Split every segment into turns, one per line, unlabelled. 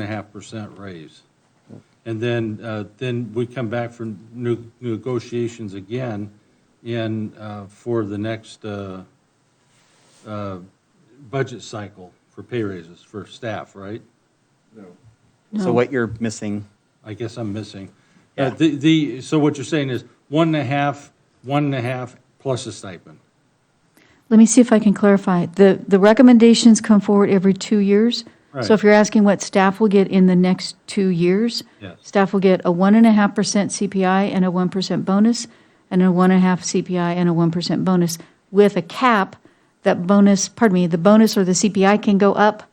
and a half percent raise. And then, uh, then we come back for new negotiations again in, uh, for the next uh, uh, budget cycle for pay raises for staff, right?
So what you're missing,
I guess I'm missing.
Yeah.
Uh, The, the, so what you're saying is one and a half, one and a half plus a stipend.
Let me see if I can clarify. The, the recommendations come forward every two years.
Right.
So if you're asking what staff will get in the next two years,
Yes.
staff will get a 1.5% CPI and a 1% bonus, and a 1.5 CPI and a 1% bonus, with a cap that bonus, pardon me, the bonus or the CPI can go up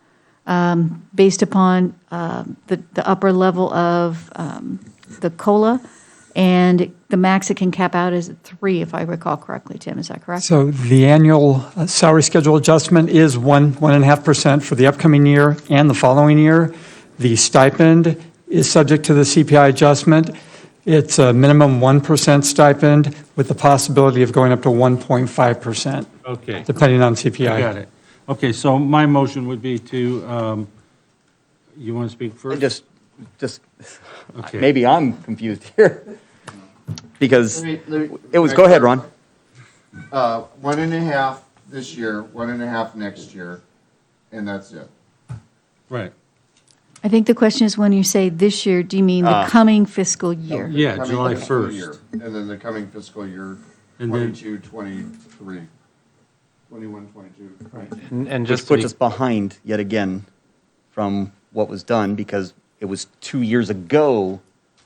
um, based upon um, the, the upper level of um, the COLA, and the max it can cap out is at three, if I recall correctly, Tim, is that correct?
So the annual uh, salary schedule adjustment is one, one and a half percent for the upcoming year and the following year. The stipend is subject to the CPI adjustment. It's a minimum 1% stipend with the possibility of going up to 1.5%,
Okay.
depending on CPI.
I got it. Okay, so my motion would be to, um, you want to speak
I
first?
just, just,
Okay.
maybe I'm confused here. Because
Let me- let me-
it was, go ahead, Ron.
Uh, one and a half this year, one and a half next year, and that's it.
Right,
I think the question is, when you say this year, do you mean the coming fiscal year?
Ah. yeah,
Coming
July
fiscal
1st.
year, And then the coming fiscal year,
And then-
twenty-two, twenty-three, twenty-one, twenty-two.
And, and
Which
just to
puts
be,
us behind yet again from what was done because it was two years ago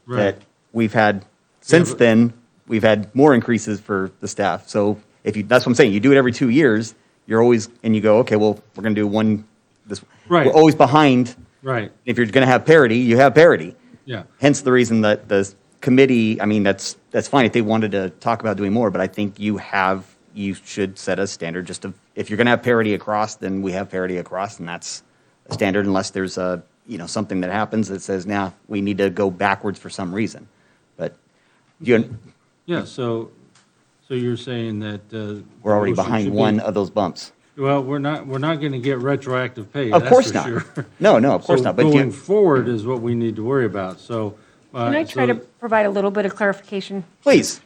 Right.
that we've had, since
but-
then, we've had more increases for the staff. So if you, that's what I'm saying, you do it every two years, you're always, and you go, okay, well, we're going to do one, this,
Right.
we're always behind.
Right,
If you're going to have parity, you have parity.
yeah,
Hence the reason that the committee, I mean, that's, that's fine if they wanted to talk about doing more, but I think you have, you should set a standard just of, if you're going to have parity across, then we have parity across, and that's a standard unless there's a, you know, something that happens that says, now, we need to go backwards for some reason. But you,
yeah, so, so you're saying that. uh,
we're already
motion should
behind
be-
one of those bumps.
Well, we're not, we're not going to get retroactive pay,
Of
that's
course
for
not.
sure.
No, no, of course
So
not, but you-
Going forward is what we need to worry about, so.
Can I try to provide a little bit of clarification?
Please,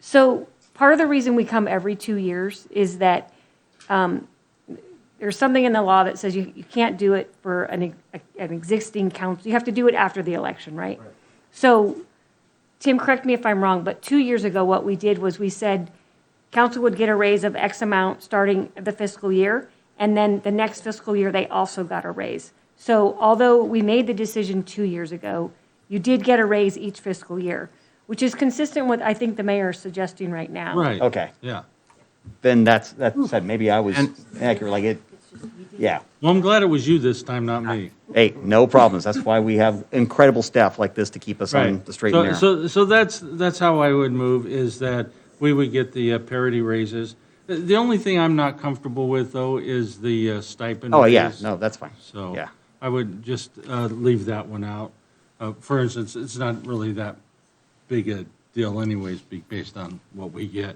So part of the reason we come every two years is that um, there's something in the law that says you, you can't do it for an, ex- an existing council. You have to do it after the election, right? So, Tim, correct me if I'm wrong, but two years ago, what we did was we said council would get a raise of X amount starting the fiscal year, and then the next fiscal year, they also got a raise. So although we made the decision two years ago, you did get a raise each fiscal year, which is consistent with, I think, the mayor is suggesting right now.
Right.
Okay.
Yeah.
then that's, that said, maybe I was
And-
accurate, like it, yeah.
Well, I'm glad it was you this time, not me.
Hey, no problems. That's why we have incredible staff like this to keep us on
Right.
the straight
So-
and narrow.
So, so that's, that's how I would move, is that we would get the uh, parity raises. The- The only thing I'm not comfortable with, though, is the uh, stipend.
Oh, yeah,
raise.
no, that's fine.
So
Yeah.
I would just uh, leave that one out. Uh, For instance, it's not really that big a deal anyways, be- based on what we get.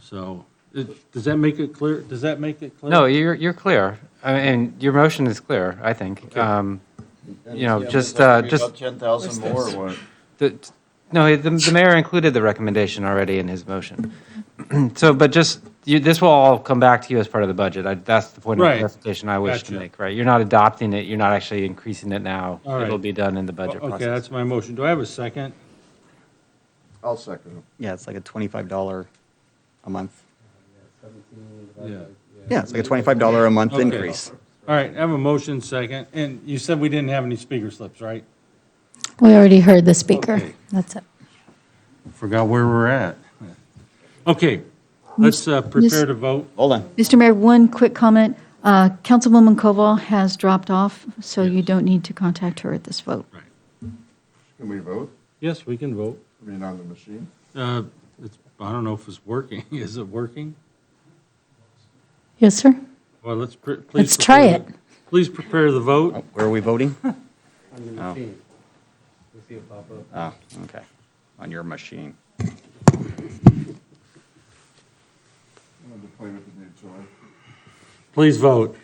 So, it- does that make it clear? Does that make it clear?
no, you're, you're clear. I mean, your motion is clear, I think. Um, You know, just, uh, just,
Ten thousand more or what?
the- no, the, the mayor included the recommendation already in his motion. So, but just, you, this will all come back to you as part of the budget. I- That's the point of
Right.
clarification I wish to
Gotcha.
make, right? You're not adopting it, you're not actually increasing it now.
All right.
It'll be done in the budget
Oh, Okay,
process.
that's my motion. Do I have a second?
I'll second it.
Yeah, it's like a twenty-five dollar a month.
Yeah.
Yeah, it's like a twenty-five dollar a month
Okay.
increase.
All right, I have a motion second, and you said we didn't have any speaker slips, right?
We already heard the speaker.
Okay.
That's it.
Forgot where we're at. Okay, let's uh, prepare to vote.
Hold on.
Mr. Mayor, one quick comment. Uh, Councilwoman Koval has dropped off, so you don't need to contact her at this vote.
Can we vote?
Yes, we can vote.
I mean, on the machine?
Uh, it's- I don't know if it's working. Is it working?
Yes, sir?
Well, let's, pre- please.
Let's try
prepare
it.
the- Please prepare the vote.
Where are we voting? Oh. Oh, okay. On your machine.
I wanted to play with the new toy.
Please vote.